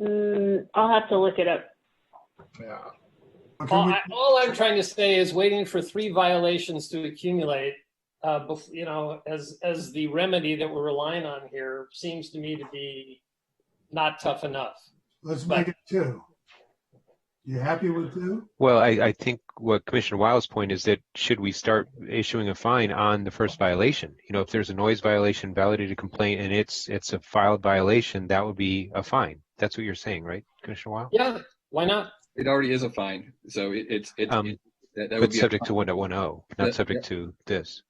Mm, I'll have to look it up. Yeah. Okay, All, we- I, all I'm trying to say is waiting for three violations to accumulate, uh, bef- you know, as, as the remedy that we're relying on here seems to me to be not tough enough. let's make it two. You happy with two? Well, I, I think what Commissioner Wiles' point is that should we start issuing a fine on the first violation? You know, if there's a noise violation, validated complaint, and it's, it's a filed violation, that would be a fine. That's what you're saying, right, Commissioner Wiles? Yeah, why not? It already is a fine, so it, it's, it's, Um, that, that would But be. a subject to fine. one point one oh, Yeah, not subject to this.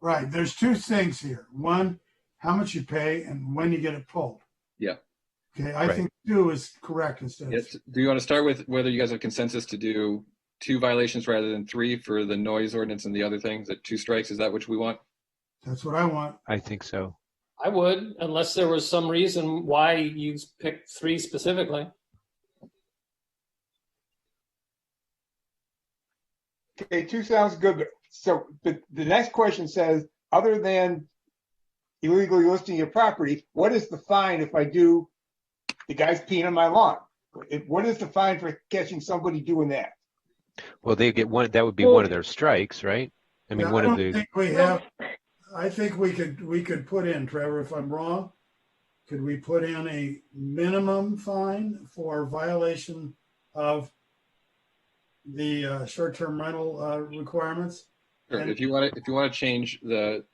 Right, there's two things here. One, how much you pay and when you get it pulled. Yeah. Okay, I Right. think two is correct instead of, Yes, do you want to start with whether you guys have consensus to do two violations rather than three for the noise ordinance and the other things, that two strikes, is that what we want? that's what I want. I think so. I would, unless there was some reason why you picked three specifically. Okay, two sounds good, but so, but the next question says, other than illegally listing your property, what is the fine if I do, the guy's peeing on my lawn? If- What is the fine for catching somebody doing that? Well, they get one, that would be Well- one of their strikes, right? I mean, Yeah, one of don't the, think We have, I think we could, we could put in, Trevor, if I'm wrong, could we put in a minimum fine for violation of the uh, short-term rental uh, requirements? Sure, And- if you want to, if you want to change the,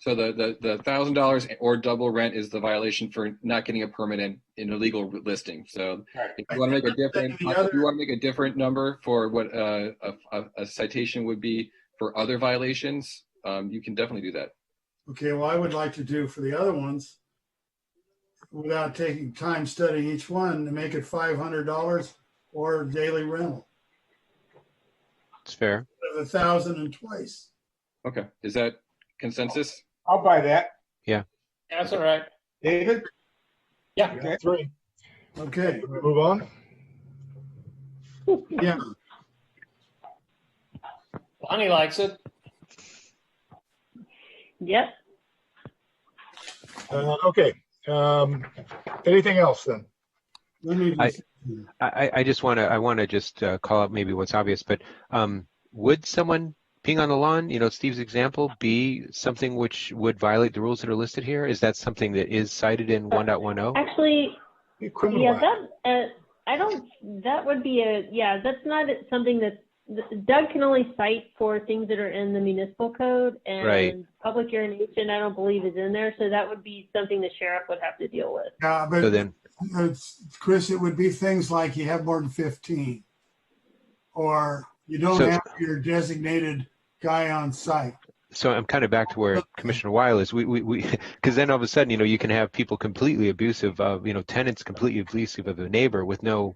so the, the, the thousand dollars or double rent is the violation for not getting a permit in, in illegal listing, so. If you want to make a different, The other- if you want to make a different number for what, uh, a, a- a citation would be for other violations, um, you can definitely do that. Okay, well, I would like to do for the other ones, without taking time studying each one, to make it five hundred dollars or daily rental, it's fair. of a thousand and twice. Okay, is that consensus? I'll buy that. That's all right. David? Yeah. Three. Okay, Move on. yeah, Bonnie likes it. Yep. Uh, okay. Um, anything else then? let me I- just, I, I- I just want to, I want to just uh, call out maybe what's obvious, but um, would someone peeing on the lawn, you know, Steve's example, be something which would violate the rules that are listed here? Is that something that is cited in 1.10? Actually, yeah, You criminalize. that, uh, I don't, that would be a, yeah, that's not something that, Doug can only cite for things that are in the municipal code Right. and public urination, I don't believe is in there, so that would be something the sheriff would have to deal with. yeah, So uh, but then, it's- Chris, it would be things like you have more than fifteen. Or you don't So- have your designated guy on site. so I'm kind of back to where Commissioner Weil is. We, we, we, because then all of a sudden, you know, you can have people completely abusive of, you know, tenants completely abusive of a neighbor with no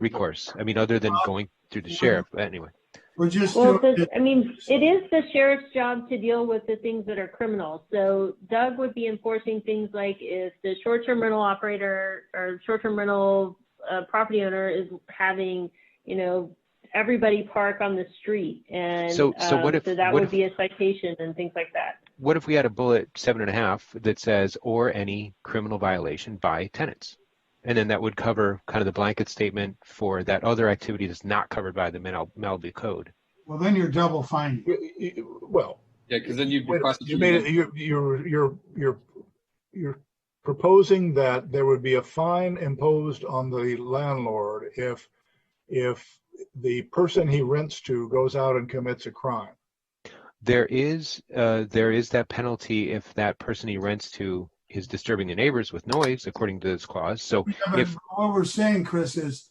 recourse. I mean, other than going through the sheriff. But anyway, We're just Well, doing the- I mean, it is the sheriff's job to deal with the things that are criminal. So Doug would be enforcing things like if the short-term rental operator or short-term rental uh, property owner is having, you know, everybody park on the street and So- so what um, if- so that what would if- be a citation and things like that. what if we had a bullet seven and a half that says, or any criminal violation by tenants? And then that would cover kind of the blanket statement for that other activity that's not covered by the Mal- Malibu Code. well, then you're double fining. You- you- Well, Yeah, because then you'd be Wait, You prosecuted. made it, you're, you're, you're, you're, you're proposing that there would be a fine imposed on the landlord if, if the person he rents to goes out and commits a crime. There is uh, there is that penalty if that person he rents to is disturbing the neighbors with noise, according to this clause. So Yeah, but if- What we're saying, Chris, is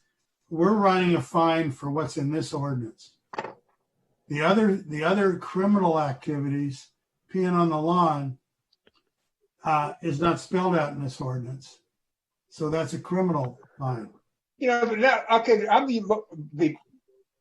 we're running a fine for what's in this ordinance. The other, the other criminal activities, peeing on the lawn, uh, is not spelled out in this ordinance. So that's a criminal fine. You know, but now, okay, I'm the, lo- the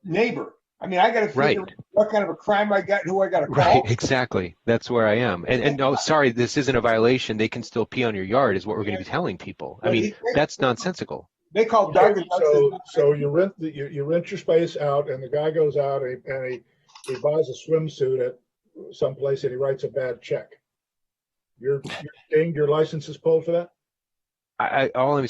neighbor. I mean, I gotta right, figure what kind of a crime I got, who I gotta right, call. exactly. That's where I am. And and oh, sorry, this isn't a violation. They can still pee on your yard, is what we're going to be telling people. I mean, that's nonsensical. They call Doug. and Doug says, So, so you rent, the- you, you rent your space out and the guy goes out and he- and he, he buys a swimsuit at someplace and he writes a bad check. You're, you're dinged, your license is pulled for that? I, I all I'm